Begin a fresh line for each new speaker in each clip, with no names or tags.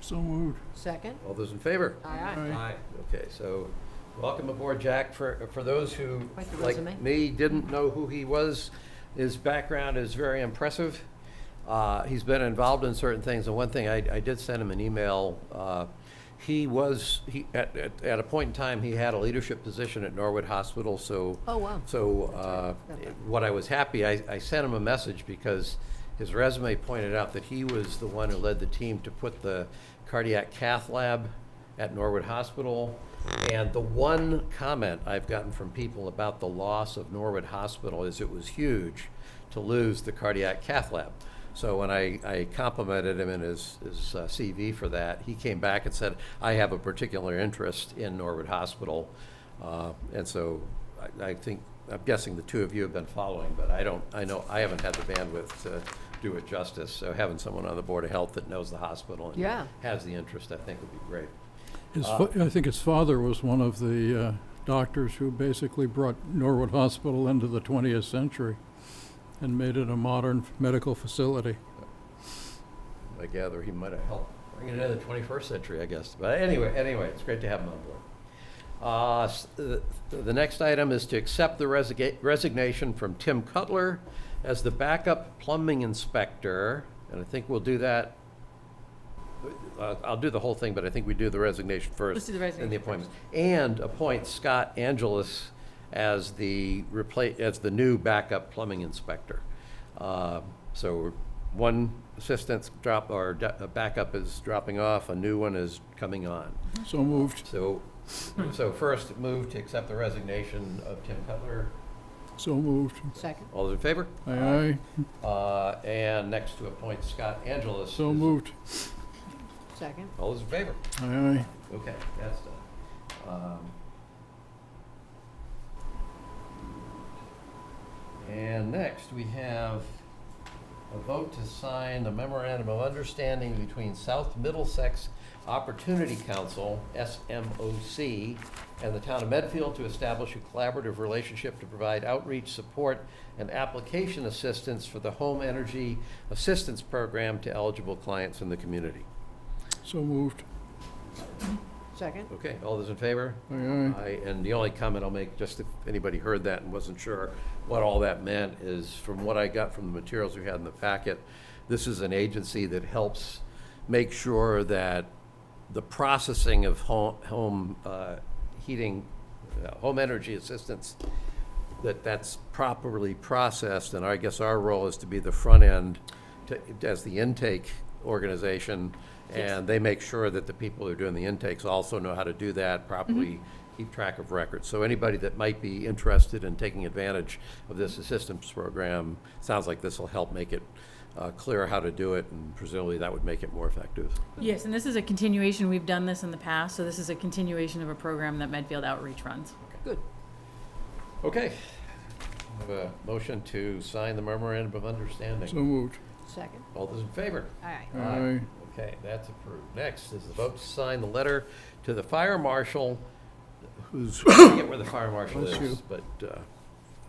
So moved.
Second?
All those in favor?
Aye, aye.
Aye. Okay, so welcome aboard, Jack. For, for those who,
Quite the resume.
like me, didn't know who he was, his background is very impressive. Uh, He's been involved in certain things, and one thing, I, I did send him an email. uh, He was, he, at, at, at a point in time, he had a leadership position at Norwood Hospital, so.
Oh, wow.
So uh,
That's right.
what I was happy, I, I sent him a message because his resume pointed out that he was the one who led the team to put the cardiac cath lab at Norwood Hospital. And the one comment I've gotten from people about the loss of Norwood Hospital is it was huge to lose the cardiac cath lab. So when I, I complimented him in his, his uh, CV for that, he came back and said, I have a particular interest in Norwood Hospital. Uh, And so I- I think, I'm guessing the two of you have been following, but I don't, I know, I haven't had the bandwidth to do it justice. So having someone on the Board of Health that knows the hospital
Yeah.
and has the interest, I think would be great.
His, fa- I think his father was one of the uh, doctors who basically brought Norwood Hospital into the 20th century and made it a modern f- medical facility.
I gather he might have helped bring it into the 21st century, I guess. But anyway, anyway, it's great to have him on board. Uh, s- The the next item is to accept the resiga- resignation from Tim Cutler as the backup plumbing inspector, and I think we'll do that. uh, I'll do the whole thing, but I think we do the resignation first.
Let's do the
And the
resignation
appointment. And appoint Scott Angelus as the repla, as the new backup plumbing inspector. Uh, So one assistant drop, or da- uh, backup is dropping off, a new one is coming on.
So moved.
So, so first, move to accept the resignation of Tim Cutler.
So moved.
Second?
All those in favor?
Aye aye.
Uh, And next to appoint Scott Angelus.
So
as-
moved.
Second?
All those in favor?
Aye aye.
Okay, that's done. Um, And next, we have a vote to sign the memorandum of understanding between South Middlesex Opportunity Council, SMOC, and the town of Medfield to establish a collaborative relationship to provide outreach, support, and application assistance for the home energy assistance program to eligible clients in the community.
So moved.
Second?
Okay, all those in favor?
Aye aye.
I- And the only comment I'll make, just if anybody heard that and wasn't sure what all that meant, is from what I got from the materials we had in the packet, this is an agency that helps make sure that the processing of ho- home uh, heating, uh, home energy assistance, that that's properly processed, and I guess our role is to be the front end, to- as the intake organization, and they make sure that the people who are doing the intakes also know how to do that properly, keep track of records. So anybody that might be interested in taking advantage of this assistance program, sounds like this will help make it uh, clear how to do it, and presumably that would make it more effective.
Yes, and this is a continuation, we've done this in the past, so this is a continuation of a program that Medfield Outreach runs.
Good.
Okay. Have a motion to sign the memorandum of
So
understanding.
moved.
Second?
All those in favor?
Aye.
Aye aye.
Okay, that's approved. Next is the vote to sign the letter to the fire marshal, who's, I forget where the fire marshal
Bless
is, but uh,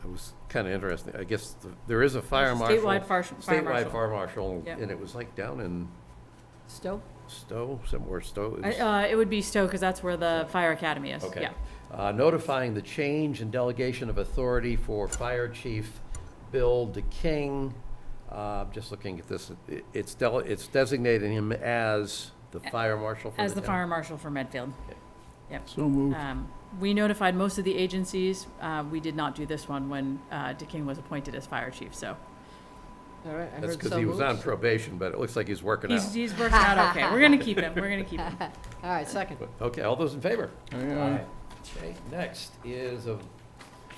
it was kind of interesting. I guess th- there is a fire
There's a
marshal.
statewide fire- fire marshal.
Statewide fire marshal,
Yep.
and it was like down in
Stowe?
Stowe, somewhere Stowe.
I-
is-
Uh, it would be Stowe, because that's where the fire academy is,
Okay.
yeah.
Uh, Notifying the change and delegation of authority for Fire Chief Bill DeKing. Uh, Just looking at this, it- it's del- it's designating him as the fire marshal for the
As the
town.
fire marshal for Medfield.
So moved.
Um, we notified most of the agencies, uh, we did not do this one when, uh, DeKing was appointed as fire chief, so.
All right, I heard so moved.
That's because he was on probation, but it looks like he's working out.
He's, he's working out okay, we're gonna keep him, we're gonna keep him.
All right, second?
Okay, all those in favor?
Aye aye.
Okay, next is a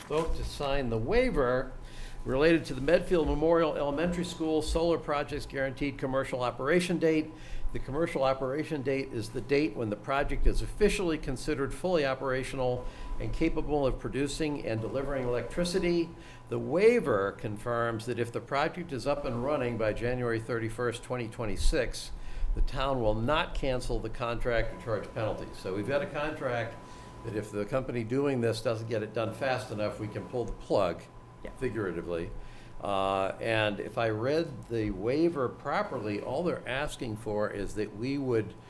vote to sign the waiver related to the Medfield Memorial Elementary School Solar Project's guaranteed commercial operation date. The commercial operation date is the date when the project is officially considered fully operational and capable of producing and delivering electricity. The waiver confirms that if the project is up and running by January 31st, 2026, the town will not cancel the contract or charge penalties. So we've got a contract that if the company doing this doesn't get it done fast enough, we can pull the plug,
Yeah.
figuratively. Uh, And if I read the waiver properly, all they're asking for is that we would